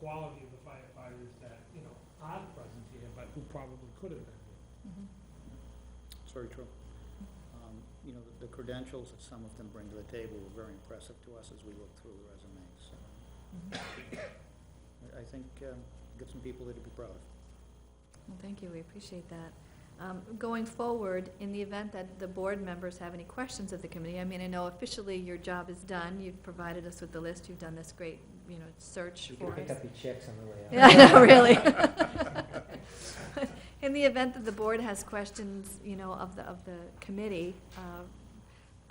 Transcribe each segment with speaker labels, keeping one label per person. Speaker 1: quality of the firefighters that, you know, aren't present here, but who probably could have been here.
Speaker 2: It's very true. Um, You know, the- the credentials that some of them bring to the table were very impressive to us as we looked through the resumes. so.
Speaker 3: Mm-hmm.
Speaker 2: I- I think, um, get some people that would be proud of.
Speaker 3: Well, Mm-hmm. thank you, we appreciate that. Um, Going forward, in the event that the board members have any questions of the committee, I mean, I know officially your job is done, you've provided us with the list, you've done this great, you know, search
Speaker 4: You
Speaker 3: for
Speaker 4: can
Speaker 3: us.
Speaker 4: pick up your chicks on the way out.
Speaker 3: Yeah, I know, really. In the event that the board has questions, you know, of the, of the committee, uh,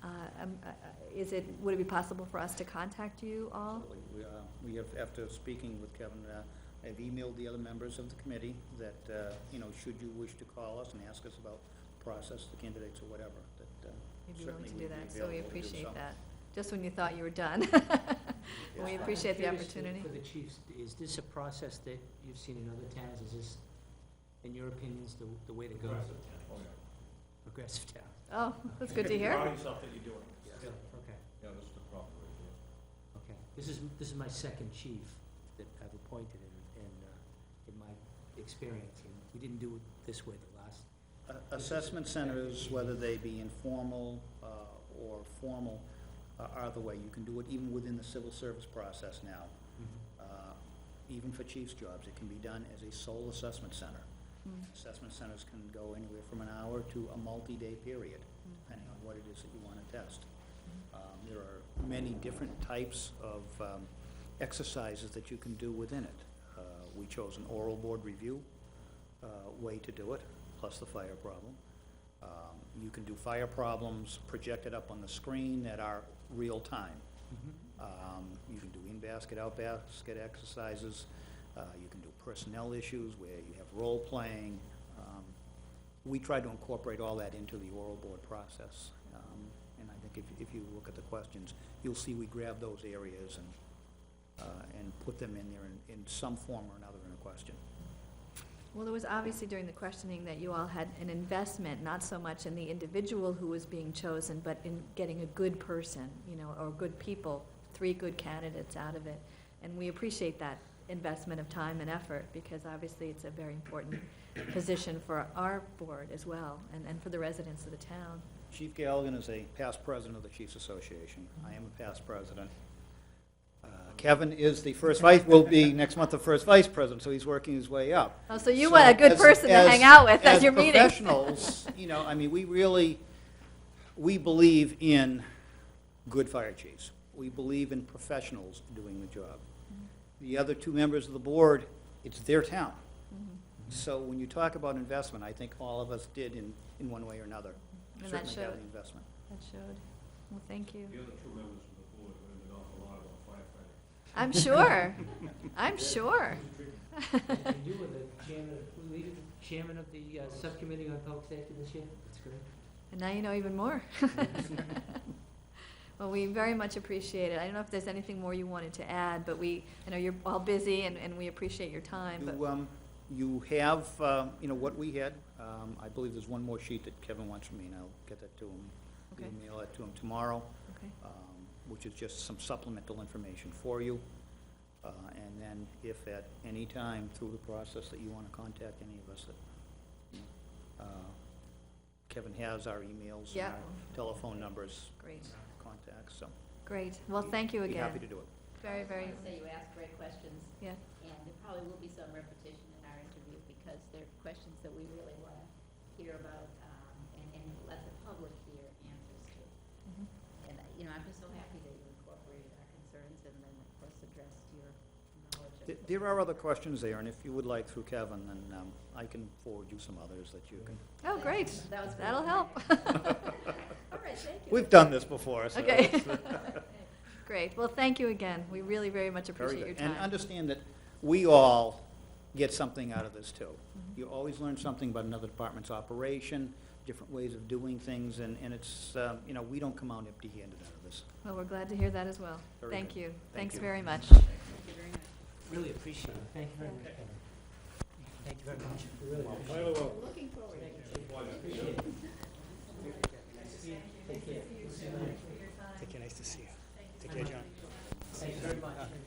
Speaker 3: uh, um, uh, is it, would it be possible for us to contact you all?
Speaker 2: Absolutely. We, uh, We have, after speaking with Kevin, uh, I've emailed the other members of the committee that, uh, you know, should you wish to call us and ask us about process, the candidates or whatever, that uh,
Speaker 3: You'd be willing
Speaker 2: certainly
Speaker 3: to
Speaker 2: we'd
Speaker 3: do
Speaker 2: be
Speaker 3: that,
Speaker 2: available to do
Speaker 3: so we appreciate
Speaker 2: so.
Speaker 3: that. Just when you thought you were done. We
Speaker 2: Yeah.
Speaker 3: appreciate the
Speaker 4: I'm curious to-
Speaker 3: opportunity.
Speaker 4: For the chiefs, is this a process that you've seen in other towns? Is this, in your opinions, the, the way to go?
Speaker 1: Progressive towns.
Speaker 4: Progressive town?
Speaker 3: Oh, that's good to
Speaker 5: Oh, You
Speaker 3: hear.
Speaker 5: Proud of yourself that you're doing it.
Speaker 4: Yeah, Okay,
Speaker 5: Yeah, that's the problem right there.
Speaker 4: okay. This is, this is my second chief that I've appointed in, in, uh, in my experience. and We didn't do it this way the last,
Speaker 2: Uh, Assessment centers, whether they be informal uh, or formal, uh, are the way. You can do it even within the civil service process now.
Speaker 4: Mm-hmm.
Speaker 2: Uh, Even for chief's jobs, it can be done as a sole assessment center.
Speaker 3: Mm.
Speaker 2: Assessment centers can go anywhere from an hour to a multi-day period, depending on what it is that you want to test. Um, There are many different types of um, exercises that you can do within it. Uh, We chose an oral board review uh, way to do it, plus the fire problem. Um, You can do fire problems projected up on the screen that are real-time. Um, You can do in-basket, out-basket exercises. Uh, You can do personnel issues where you have role-playing. Um, We try to incorporate all that into the oral board process. Um, And I think if- if you look at the questions, you'll see we grab those areas and, uh, and put them in there in- in some form or another in a question.
Speaker 3: Well, there was obviously during the questioning that you all had an investment, not so much in the individual who was being chosen, but in getting a good person, you know, or good people, three good candidates out of it. And we appreciate that investment of time and effort, because obviously it's a very important position for our board as well, and, and for the residents of the town.
Speaker 2: Chief Galligan is a past president of the Chiefs Association. I am a past president. Uh, Kevin is the first vice, will be next month the first vice president, so he's working his way up.
Speaker 3: Oh, so you want a good
Speaker 2: as-
Speaker 3: person to
Speaker 2: as-
Speaker 3: hang out with at
Speaker 2: as
Speaker 3: your meeting.
Speaker 2: professionals, you know, I mean, we really, we believe in good fire chiefs. We believe in professionals doing the job. The other two members of the board, it's their town.
Speaker 3: Mm-hmm.
Speaker 2: So when you talk about investment, I think all of us did in, in one way or another.
Speaker 3: And that
Speaker 2: Certainly have
Speaker 3: showed.
Speaker 2: the investment.
Speaker 3: That showed. Well, thank you.
Speaker 5: The other two members of the board learned an awful lot about firefighting.
Speaker 3: I'm sure. I'm sure.
Speaker 4: and you were the chairman, were you the chairman of the uh, subcommittee on public safety this year? That's great.
Speaker 3: And now you know even more. Well, we very much appreciate it. I don't know if there's anything more you wanted to add, but we, I know you're all busy and, and we appreciate your time,
Speaker 2: You,
Speaker 3: but,
Speaker 2: um, you have, uh, you know, what we had. Um, I believe there's one more sheet that Kevin wants from me, and I'll get that to him.
Speaker 3: Okay.
Speaker 2: Email that to him tomorrow,
Speaker 3: okay.
Speaker 2: um, which is just some supplemental information for you. Uh, and then if at any time through the process that you want to contact any of us, that, you know, uh, Kevin has our emails
Speaker 3: Yeah.
Speaker 2: and our telephone numbers,
Speaker 3: Great,
Speaker 2: contacts, so.
Speaker 3: great. Well, thank you
Speaker 2: be happy
Speaker 3: again.
Speaker 2: to do it.
Speaker 3: Very, very,
Speaker 6: I just wanna say you asked great questions,
Speaker 3: yeah,
Speaker 6: and there probably will be some repetition in our interview, because they're questions that we really wanna hear about, um, and, and let the public hear answers to.
Speaker 3: Mhm.
Speaker 6: And, uh, you know, I'm just so happy that you incorporated our concerns and then, of course, addressed your knowledge of.
Speaker 2: Th- There are other questions there, and if you would like through Kevin, then um, I can forward you some others that you can.
Speaker 3: Oh, great.
Speaker 6: That was.
Speaker 3: That'll help.
Speaker 6: All right, thank you.
Speaker 2: We've done this before, so.
Speaker 3: Okay.
Speaker 2: it's, uh,
Speaker 3: Great. Well, thank you again. We really very much
Speaker 2: very
Speaker 3: appreciate your
Speaker 2: good. And
Speaker 3: time.
Speaker 2: understand that we all get something out of this, too.
Speaker 3: Mm-hmm.
Speaker 2: You always learn something about another department's operation, different ways of doing things, and, and it's, um, you know, we don't come out empty-handed out of this.
Speaker 3: Well, we're glad to hear that as well.
Speaker 2: Very
Speaker 3: Thank
Speaker 2: good.
Speaker 3: you. Thanks
Speaker 2: you.
Speaker 3: very much.
Speaker 6: Thank you very much.
Speaker 4: Really appreciate it. Thank you very much, Kevin. Thank you very much. We really appreciate it.
Speaker 6: We're looking forward to
Speaker 4: Appreciate
Speaker 6: it.
Speaker 4: it. Take care. Take care, nice to see you. Take care, John. Thank you very much.